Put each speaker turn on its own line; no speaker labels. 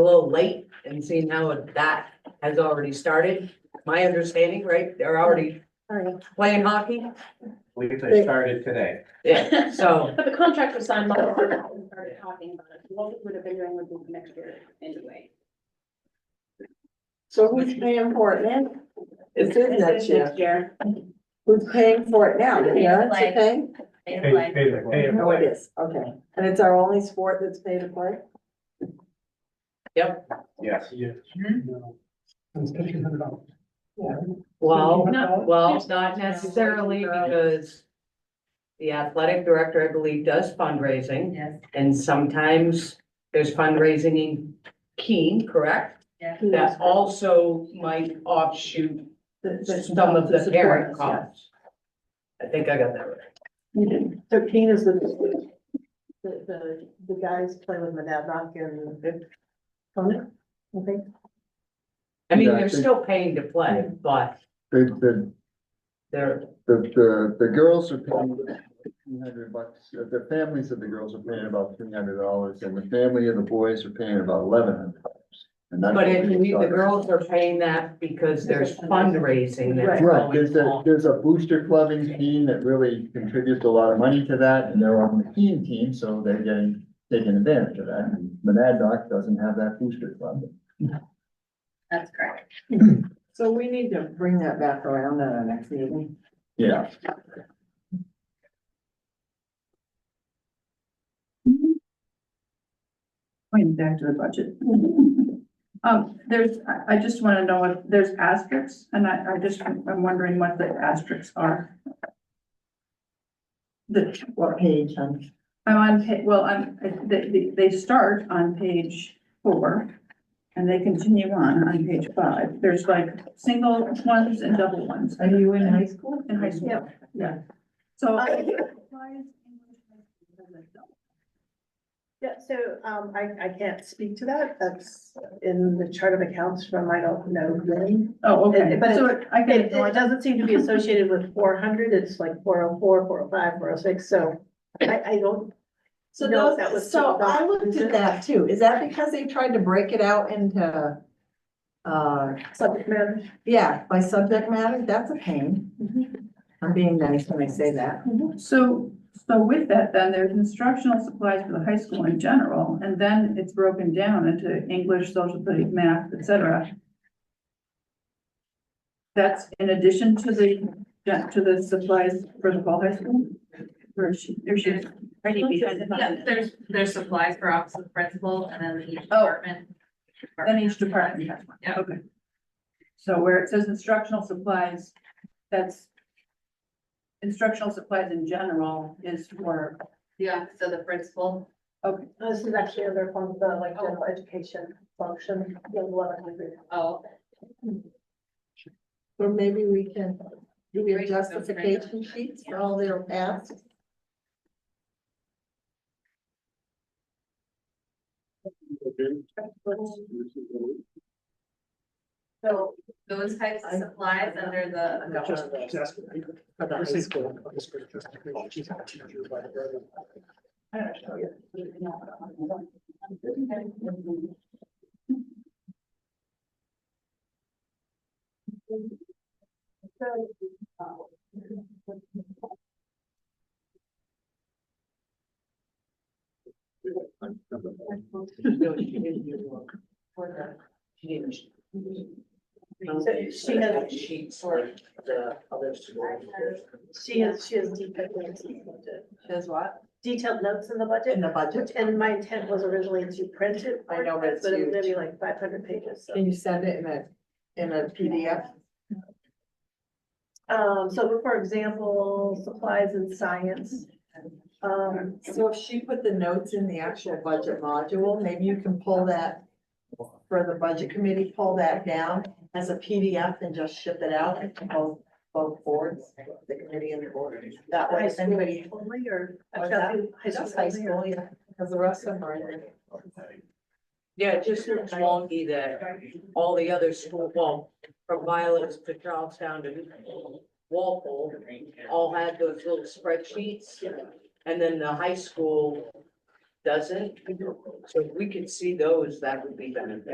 little late and seeing how that has already started. My understanding, right, they're already
Alright.
playing hockey,
believe they started today.
yeah, so,
But the contract was signed long ago, and we started talking about it, what we would have been doing would be next year anyway.
So who's paying for it now?
it's in that shift.
year.
Who's paying for it now? The parents are paying?
Pay, pay, pay. it
Oh, it
away.
is, okay. And it's our only sport that's paid to play?
Yes.
Yes. It's fifteen hundred dollars.
Well,
No.
well, uh, it's not necessarily because the athletic director, I believe, does fundraising
Yes,
and sometimes there's fundraising in Keene, correct?
yeah.
That also might offshoot
The- the-
some of the parent
supporters,
costs. I think I got that right.
yeah. Thirteen is the, the, the, the guys play with Monadnock and. Conan, I think.
I mean,
Yeah, I
they're
think-
still paying to play, but
The, the,
they're,
the, the, the girls are paying three hundred bucks, uh, the families of the girls are paying about three hundred dollars, and the family of the boys are paying about eleven hundred dollars. And that's.
but
what
if
we
we- the
started.
girls are paying that because there's
There's a fundraising.
fundraising that's
Right, there's
going
a,
on.
there's a booster clubbing team that really contributes a lot of money to that, and they're on the team team, so they're getting, taking advantage of that. And Monadnock doesn't have that booster club.
That's correct.
So we need to bring that back around at our next meeting.
Yeah,
Going back to the budget.
Mm-hmm.
Um, there's, I, I just want to know if there's asterisks, and I, I just, I'm wondering what the asterisks are. The,
What page, um,
I'm on pa, well, I'm, they, they, they start on page four, and they continue on, on page five. There's like single ones and double ones
are you in high school?
in high school. Yeah. So.
Uh,
why is English high school double?
Yeah, so, um, I, I can't speak to that. That's in the chart of accounts from, I don't know, really.
Oh, okay,
But it-
so I can
It,
ignore
it
that.
doesn't seem to be associated with four hundred, it's like 404, 405, 406. so I, I don't.
So
know
those,
if that was
so
still
I
adopted
looked
into
at that too. Is that because they tried to break it out into, uh,
Subject matter.
yeah, by subject matter? That's a pain. I'm being nice when I say that.
So, so with that, then there's instructional supplies for the high school in general, and then it's broken down into English, social studies, math, et cetera. That's in addition to the, to the supplies for the fall high school? Or she, or she's already behind
Yeah,
it.
there's, there's supplies for office of principal and then each
Oh.
department.
Then each department has one.
Yeah.
Okay. So where it says instructional supplies, that's instructional supplies in general is for,
Yeah, so the principal.
okay,
uh, This is actually under one of the like general education function, the eleven hundred.
Oh,
Or maybe we can, do we have
Break those down.
justification sheets for all their past?
So
those types of supplies under the
Just,
adult.
just ask. This is cool. This is just- oh, geez, I'm a teenager by the brother.
No, she didn't do it. She didn't.
So she has-
Sheets for the other schools.
she has, she has detailed notes in the budget.
Says what?
Detailed notes in the budget.
In the budget?
And my intent was originally to print it.
I know, but it's
But it was
huge.
gonna be like five hundred pages, so.
Can you send it in a, in a PDF?
Um, so for example, supplies in science. Um,
So if she put the notes in the actual budget module, maybe you can pull that for the budget committee, pull that down as a PDF and just ship it out to both, both boards, the committee and the board. That way,
high
if
school
anybody,
only or?
What's that? just high school, yeah, because the rest of them are in there.
Yeah, it just looks wonky that all the other school, well, from Violet's to Charlestown to Walpole, all had those little spreadsheets. And then the high school doesn't. So if we could see those, that would be beneficial.